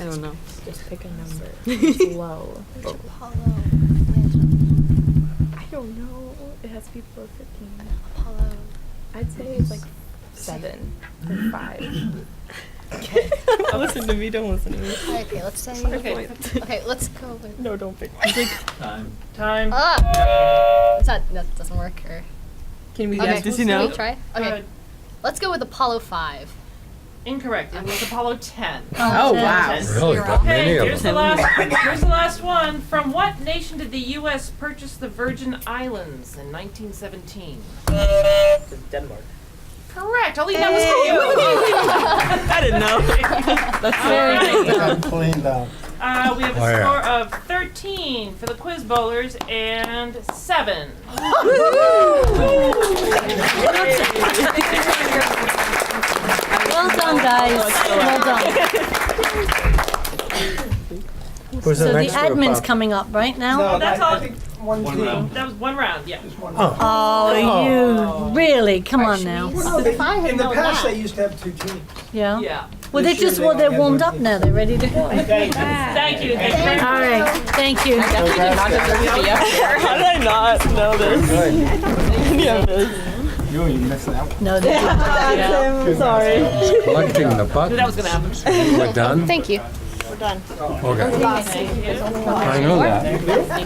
I don't know. Just pick a number. It's low. Apollo. Mansion. I don't know. It has to be below 15. Apollo. I'd say it's like seven or five. Okay. listen to me, don't listen to me. okay, let's say. Okay. Okay, let's go with. No, don't pick. Time. Time. Ah! It's not, that doesn't work. Or, Can we okay, guess? Does he know? Can we try? Okay. Uh, let's go with Apollo 5. Incorrect. It was Apollo 10. Oh, wow. Yes. Really? That many Okay, of here's the them? last. Here's the last one. From what nation did the U.S. purchase the Virgin Islands in 1917? Denmark. Correct. I'll leave that one I didn't know. That's All very right. good. I'm cleaned up. Uh, we have a Oh, yeah. score of 13 for the quiz bowlers and seven. Well done, guys. Well done. Who's So the next group admin's up? coming up right now. No, That's that- I all- think One One team. round. That was one round. Yeah. Just one. Oh. Oh, you really? Come on now. Well, no, they- If I had In the known past, that. they used to have two teams. Yeah. Yeah. Well, they This year just they well, they're only have warmed one up team. now. They're ready to go. Thank you. Thank you. Thank you very Thank All much. right. Thank you. How did I not know this? Good. Any of this? You, you missed out. No, they didn't. I'm sorry. Collecting the buttons. That was gonna happen. We're done? Thank you. Okay. I know that.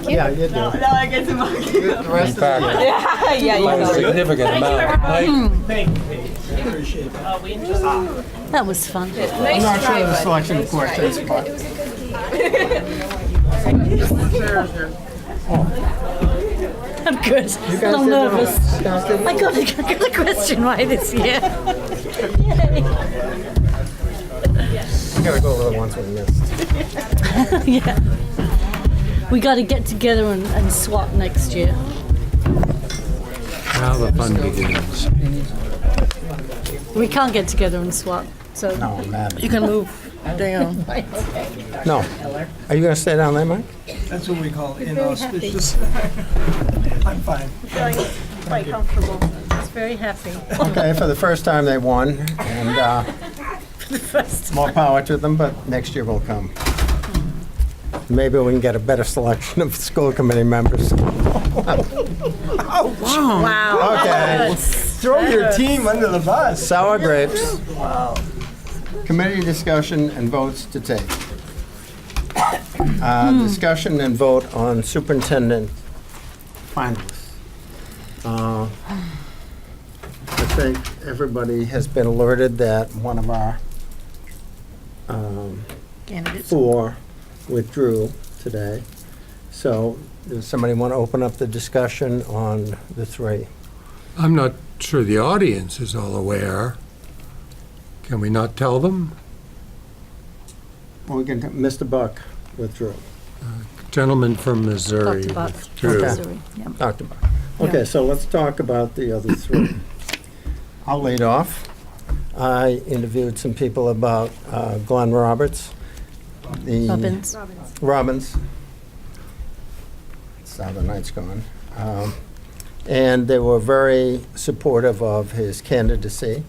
Yeah, you do. Now I get to mock you. The rest In of the fact, Yeah, yeah, by a significant Thank you, amount. Hmm. everybody. Mike, Thank you. Appreciate that. Uh, we enjoyed it. That was fun. I'm not sure of the selection of questions, but. I'm good. You A guys little did well. nervous. You guys did I got a, I got a question right this year. I gotta go over the ones we missed. yeah. We got to get together and, and swap next year. now the fun begins. We can't get together and swap. So No, man. You can move. Damn. No. Are you gonna stay down there, Mike? That's what we call inauspicious. I'm fine. Quite comfortable. it's very happy. Okay, for the first time they won, and uh, more power to them, but next year will come. Maybe we can get a better selection of school committee members. Wow. Okay, Throw your team under the bus. sour grapes. Committee discussion and votes to take. Uh, Discussion and vote on superintendent finalists. Uh, I think everybody has been alerted that one of our um, four withdrew today. So does somebody want to open up the discussion on the three? I'm not sure the audience is all aware. Can we not tell them? Well, we can, Mr. Buck withdrew. Gentleman from Missouri Dr. Buck. withdrew. Missouri. Yeah. Dr. Buck. Okay, so let's talk about the other three. I'll lead off. I interviewed some people about uh, Glenn Roberts. the- Robbins. Robbins. It's how the night's gone. Um, And they were very supportive of his candidacy.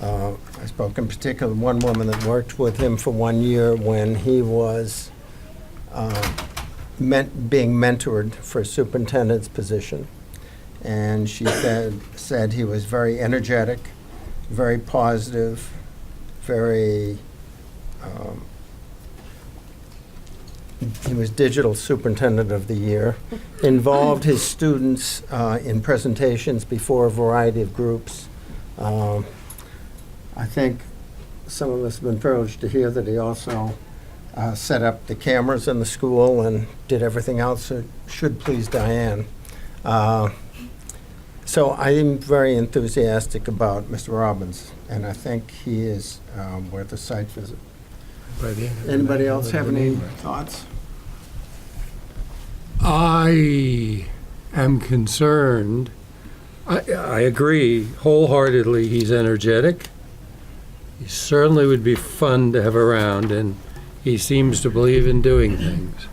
Uh, I spoke in particular with one woman that worked with him for one year when he was uh, men- being mentored for a superintendent's position. And she said, said he was very energetic, very positive, very um, he was digital superintendent of the year, involved his students uh, in presentations before a variety of groups. Um, I think some of us have been privileged to hear that he also uh, set up the cameras in the school and did everything else that should please Diane. Uh, So I am very enthusiastic about Mr. Robbins, and I think he is um, worth a site visit. By the end of the Anybody night, else I'll have let any them know. thoughts? I am concerned. I, I agree wholeheartedly. He's energetic. He certainly would be fun to have around, and he seems to believe in doing things.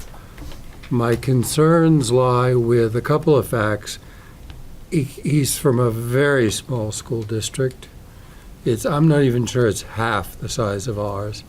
My concerns lie with a couple of facts. He, he's from a very small school district. It's I'm not even sure it's half the size of ours.